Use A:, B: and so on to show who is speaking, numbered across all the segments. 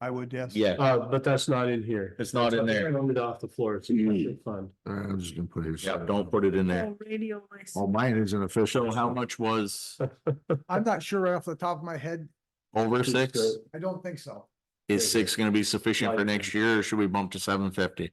A: I would, yes.
B: Yeah,
C: Uh, but that's not in here.
B: it's not in there. Mm.
C: I Rounded off the floor. It's a special fund.
D: I'm just gonna put his.
B: Yeah, don't put it in there.
E: Oh, Radio license.
D: Well, mine isn't official.
B: So how much was
A: I'm not sure right off the top of my head.
B: over six?
A: I don't think so.
B: Is six gonna be sufficient for next year or should we bump to seven fifty?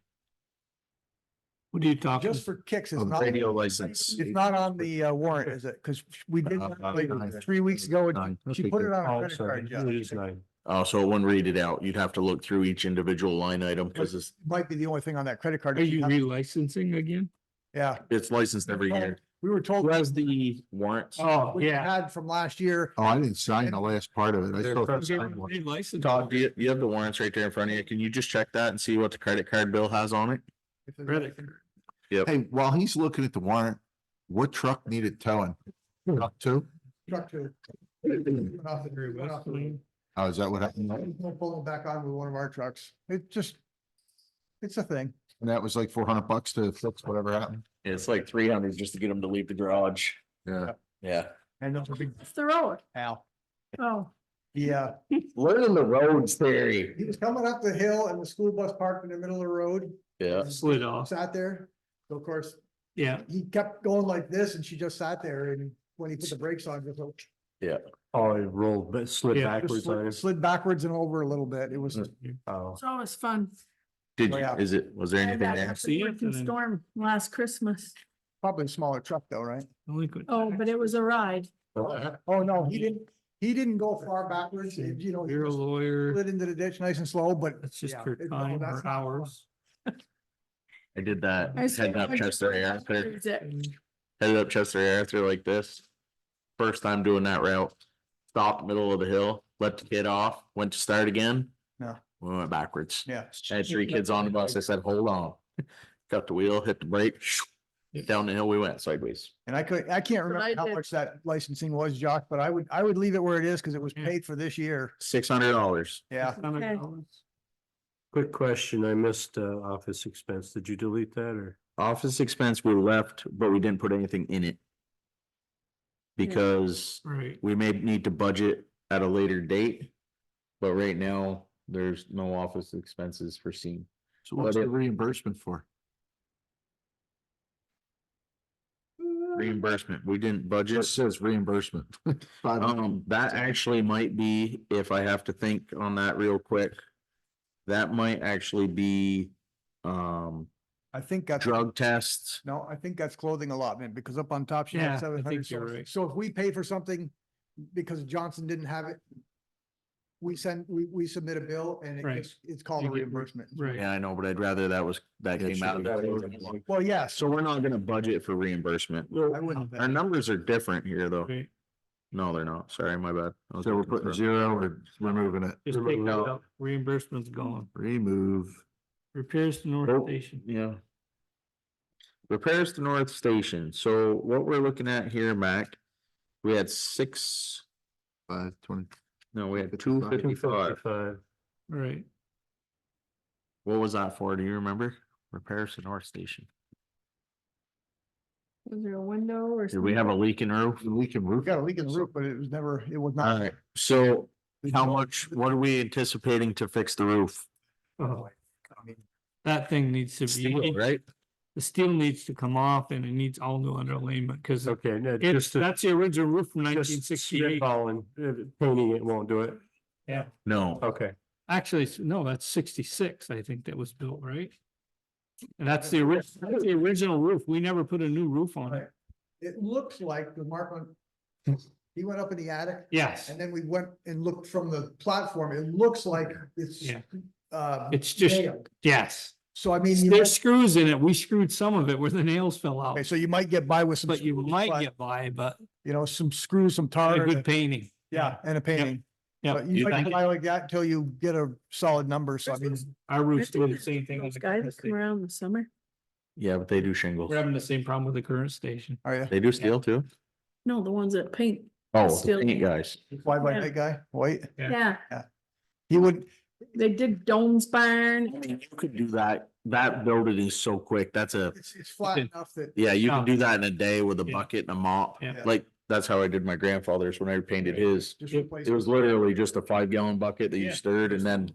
C: What are you talking?
A: Just for kicks, it's
D: Oh, the
A: not, it's
B: Um, Radio license.
A: not on the uh, warrant, is it? Because we did, that, like, three weeks ago,
B: uh,
A: and she put it on
C: Oh,
A: her
C: I'm
A: credit
C: sorry.
A: card, Jeff.
C: It is nine.
B: Oh, so it wouldn't read it out. You'd have to look through each individual line item because it's,
A: Might be the only thing on that credit card.
F: Are you relicensing again?
A: Yeah.
B: it's licensed every year.
A: We were told
C: Was the,
B: Warrants.
C: oh,
A: we
C: yeah.
A: had from last year.
D: Oh, I didn't sign the last part of it. I
C: They're
D: still
C: first-
D: signed one.
B: Todd, do
F: Relicensing.
B: you, you have the warrants right there in front of you. Can you just check that and see what the credit card bill has on it?
A: If there's
C: Credit.
A: anything-
D: Hey, while he's looking at the warrant, what truck needed towing? Truck two?
A: Truck to. Went off the grid, went off the grid.
D: Oh, is that what happened?
A: We'll Pull them back on with one of our trucks. It just, it's a thing.
D: And that was like four hundred bucks to fix whatever happened?
B: It's like three hundred just to get them to leave the garage.
D: Yeah.
B: Yeah.
A: And those are big,
E: It's the road.
A: Al.
E: Oh,
A: Yeah,
B: Learning the roads theory.
A: he was coming up the hill and the school bus parked in the middle of the road,
B: Yeah.
C: Uh, Slid off.
A: sat there. So of course,
C: Yeah.
A: he kept going like this and she just sat there and when he put the brakes on, just like-
C: Oh, it rolled, but slid
A: just
C: backwards on
A: slid-
C: us.
A: slid backwards and over a little bit. It was,
F: Mm.
C: Oh.
E: it's always fun.
B: Did,
A: Oh,
B: you-
A: yeah.
B: is it, was there
E: I had
B: anything
E: that
B: there?
E: after the wicked
F: Mm.
E: Storm last Christmas.
A: probably a smaller truck though, right?
E: Oh, but it was a ride.
A: Oh, no, he didn't, he didn't go far backwards, It- you know. he
F: You're a
A: just
F: lawyer.
A: Slid into the ditch nice and slow, but
F: That's just
A: yeah,
F: your
A: it- no,
F: time
A: that's
F: or
A: not-
F: hours.
B: I did that,
E: I
B: headed up
E: swear-
B: Chester Air, after-
E: Is
F: Mm.
E: it-
B: headed up Chester Air through like this. First time doing that route, stopped middle of the hill, let the kid off, went to start again.
A: No.
B: We went backwards.
A: Yeah.
B: I had three kids on the bus. I said, hold on. Got the wheel, hit the brake, down the hill we went sideways.
A: And I could, I can't
E: That's what I
A: remember how
E: did.
A: much that licensing was, Josh, but I would, I would leave it where it is because it was
F: Yeah.
A: paid for this year.
B: Six hundred dollars.
A: Yeah.
E: Okay.
C: Quick question. I missed, uh, office expense. Did you delete that or?
B: Office expense we left, but we didn't put anything in it.
E: Yeah.
B: Because
F: Right.
B: we may need to budget at a later date. But right now, there's no office expenses foreseen.
D: So what's
B: But
D: the
B: it-
D: reimbursement for?
B: Reimbursement, we didn't
D: It
B: budget.
D: says reimbursement. Five hundred.
B: Um, that actually might be, if I have to think on that real quick. That might actually be, um,
A: I think that's,
B: drug tests.
A: no, I think that's clothing allotment because up on top she
F: Yeah, I
A: had
F: think
A: seven hundred.
F: you're right.
A: So if we pay for something because Johnson didn't have it, we send, we, we submit a bill and it
F: Right.
A: gets, it's called a
F: You get re-
A: reimbursement.
F: Right.
B: Yeah, I know, but I'd rather that was, that
D: Yeah,
B: came
D: sure.
B: out. of-
D: That-
A: Well, yes,
B: So we're not gonna budget for reimbursement.
A: I wouldn't.
F: Uh-huh.
B: Our numbers are different here, though.
F: Right.
B: No, they're not. Sorry, my bad. I was
D: So we're
B: looking
D: putting
B: for-
D: zero or removing it.
F: Just take it out. Reimbursement's gone.
D: Remove.
F: Repairs to North
B: Nope.
F: Station.
B: Yeah. Repairs to North Station, so what we're looking at here, Mac, we had six,
D: Five twenty.
B: no, we had two fifty-five.
C: Fifty-five.
F: Right.
B: What was that for, do you remember? Repairs to North Station.
E: Was there a window or?
B: Did we have a leaking roof?
D: Leaking roof.
A: We got a leak in the roof, but it was never, it was not.
B: Alright, so
F: Uh,
B: how much, what are we anticipating to fix the roof?
F: Oh,
A: I mean,
F: that thing needs to
B: Steel,
F: be,
B: Right?
F: the steel needs to come off and it needs all new underlayment because
C: Okay, no,
F: it's,
C: just.
F: that's the original roof from nineteen
C: Just
F: sixty-eight.
C: spitballing, uh, painting it won't do it.
B: No,
C: Okay.
F: Actually, s- no, that's sixty-six, I think that was built, right? And that's the ori- that's the original roof. We never put a new roof on it.
A: It looks like the mark on, he went up in the attic
F: Yes,
A: And then we went and looked from the platform. It looks like it's.
F: Yeah.
A: Uh,
F: it's just,
A: nailed.
F: yes.
A: so I mean. you
F: There's
A: might-
F: screws in it. We screwed some of it where the nails fell
A: Okay,
F: out,
A: so you might get by with some.
F: but you
A: screws,
F: might
A: but,
F: get by, but
A: You know, some screws, some
F: a
A: tar. and a-
F: good painting.
A: Yeah, and a painting.
F: Yeah.
A: But You
F: You
A: might get
F: think-
A: by like that until you get a solid number. So I mean,
F: Our roof's doing the same thing
E: Those
F: as the
E: guys
F: current
E: that come
F: station.
E: around in the summer.
B: yeah, but they do shingles.
F: We're having the same problem with the current station.
A: are you?
B: They do steel too?
E: No, the ones that paint.
B: Oh, the
E: Steel.
B: paint guys.
A: Why by
E: Yeah.
A: that guy? White?
F: Yeah.
E: Yeah,
A: He would,
E: they did Doan's
B: I
E: Barn.
B: mean, you could do that, that building is so quick, that's a,
A: it's, it's flat
F: Okay.
A: enough that.
B: yeah, you can
F: Oh.
B: do that in a day with a
F: Yeah.
B: bucket and a mop.
F: Yeah.
B: Like, that's how I did my grandfather's when I painted his.
A: Just
F: It-
A: replace
B: It was literally just a five gallon bucket that you
F: Yeah.
B: stirred and then